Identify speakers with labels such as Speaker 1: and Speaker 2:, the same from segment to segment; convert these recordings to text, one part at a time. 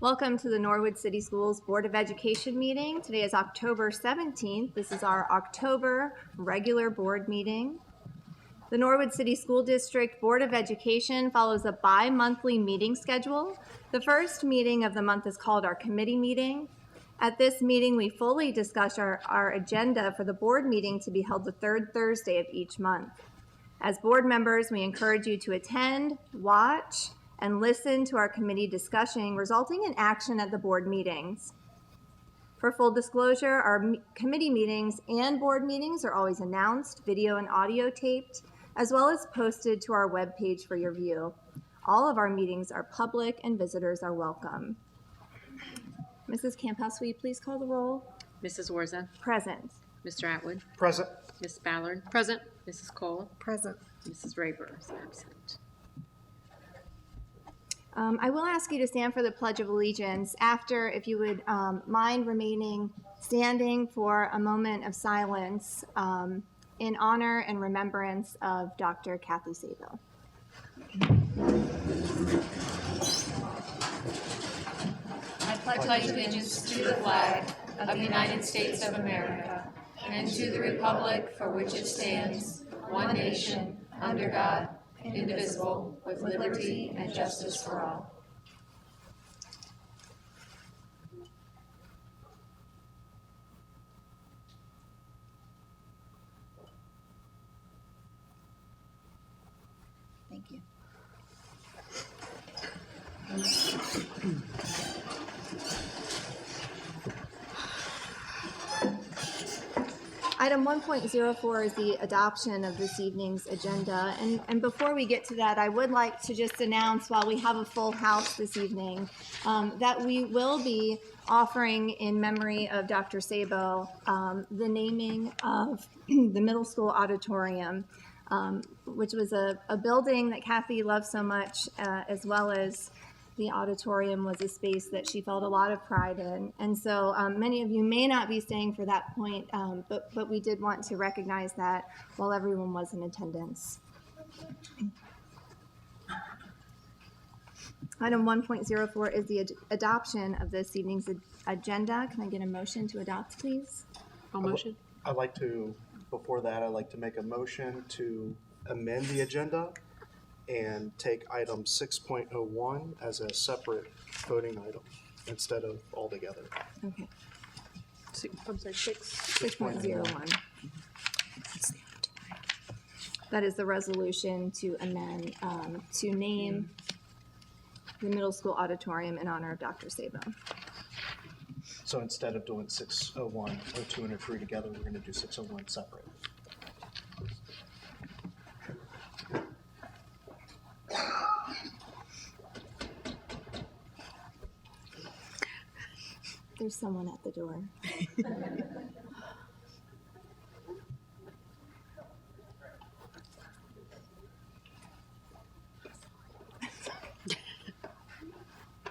Speaker 1: Welcome to the Norwood City Schools Board of Education meeting. Today is October 17th. This is our October regular board meeting. The Norwood City School District Board of Education follows a bi-monthly meeting schedule. The first meeting of the month is called our committee meeting. At this meeting, we fully discuss our, our agenda for the board meeting to be held the third Thursday of each month. As board members, we encourage you to attend, watch, and listen to our committee discussion resulting in action at the board meetings. For full disclosure, our m- committee meetings and board meetings are always announced, video and audio taped, as well as posted to our webpage for your view. All of our meetings are public and visitors are welcome. Mrs. Camp House, will you please call the roll?
Speaker 2: Mrs. Warza,
Speaker 1: Present.
Speaker 2: Mr. Atwood,
Speaker 3: Present.
Speaker 2: Miss Ballard. Present. Mrs. Cole,
Speaker 4: Present.
Speaker 2: Mrs. Rayburn is absent.
Speaker 1: Um, I will ask you to stand for the Pledge of Allegiance after, if you would um, mind remaining standing for a moment of silence um, in honor and remembrance of Dr. Kathy Sabo.
Speaker 5: I pledge allegiance to the flag of the United States of America and to the republic for which it stands, one nation, under God, indivisible, with liberty and justice for all.
Speaker 4: Thank you.
Speaker 1: Item 1.04 is the adoption of this evening's agenda. And, and before we get to that, I would like to just announce, while we have a full house this evening, um, that we will be offering in memory of Dr. Sabo, um, the naming of the middle school auditorium, um, which was a, a building that Kathy loved so much, uh, as well as the auditorium was a space that she felt a lot of pride in. And so um, many of you may not be staying for that point, um, but, but we did want to recognize that while everyone was in attendance. Item 1.04 is the ad- adoption of this evening's ad- agenda. Can I get a motion to adopt, please?
Speaker 2: All motion?
Speaker 3: I'd like to, before that, I'd like to make a motion to amend the agenda and take item six point oh one as a separate voting item instead of all together.
Speaker 1: Okay.
Speaker 2: Six- I'm sorry, six.
Speaker 1: 6.01. That is the resolution to amend, um, to name the middle school auditorium in honor of Dr. Sabo.
Speaker 3: So instead of doing six oh one, oh two, and oh three together, we're gonna do six oh one separate.
Speaker 1: There's someone at the door.
Speaker 2: I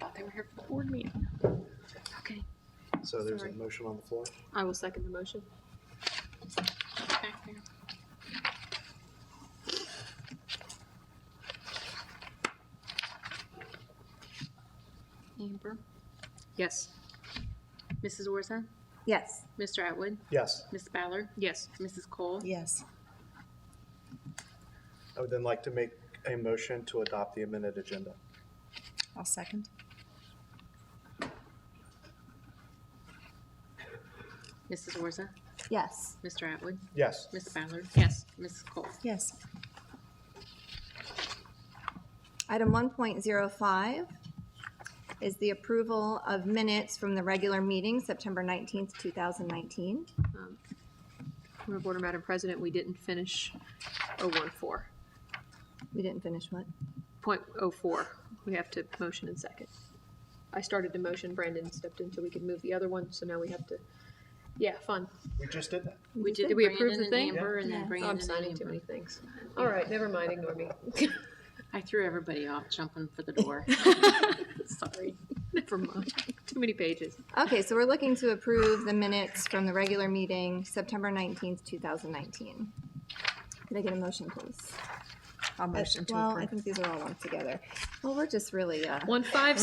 Speaker 2: thought Oh, they were here for the board meeting. Okay,
Speaker 3: So there's a
Speaker 2: Sorry.
Speaker 3: motion on the floor.
Speaker 2: I will second the motion. Back there. Amber? Yes. Mrs. Warza,
Speaker 1: Yes.
Speaker 2: Mr. Atwood,
Speaker 3: Yes,
Speaker 2: Miss Ballard. Yes. Mrs. Cole.
Speaker 4: Yes.
Speaker 3: I would then like to make a motion to adopt the amended agenda.
Speaker 4: I'll second.
Speaker 2: Mrs. Warza,
Speaker 1: Yes.
Speaker 2: Mr. Atwood,
Speaker 3: Yes,
Speaker 2: Miss Ballard. Yes. Mrs. Cole.
Speaker 4: Yes.
Speaker 1: Item 1.05 is the approval of minutes from the regular meeting, September 19th, 2019.
Speaker 2: Point of order, Madam President, we didn't finish 014,
Speaker 1: We didn't finish what?
Speaker 2: point oh four. We have to motion and second. I started to motion, Brandon stepped in so we could move the other one, so now we have to, yeah, fun.
Speaker 3: we just did that.
Speaker 2: We did, did we approve the thing?
Speaker 1: and then Yeah.
Speaker 2: Oh, I'm signing too many things. All right, never mind, ignore me.
Speaker 6: I threw everybody off jumping for the door.
Speaker 2: Sorry, never mind, too many pages.
Speaker 1: Okay, so we're looking to approve the minutes from the regular meeting, September 19th, 2019. Can I get a motion, please?
Speaker 4: I'll motion to
Speaker 1: Well, I
Speaker 4: approve.
Speaker 1: think these are all lumped together. Well, we're just really, uh,
Speaker 2: One five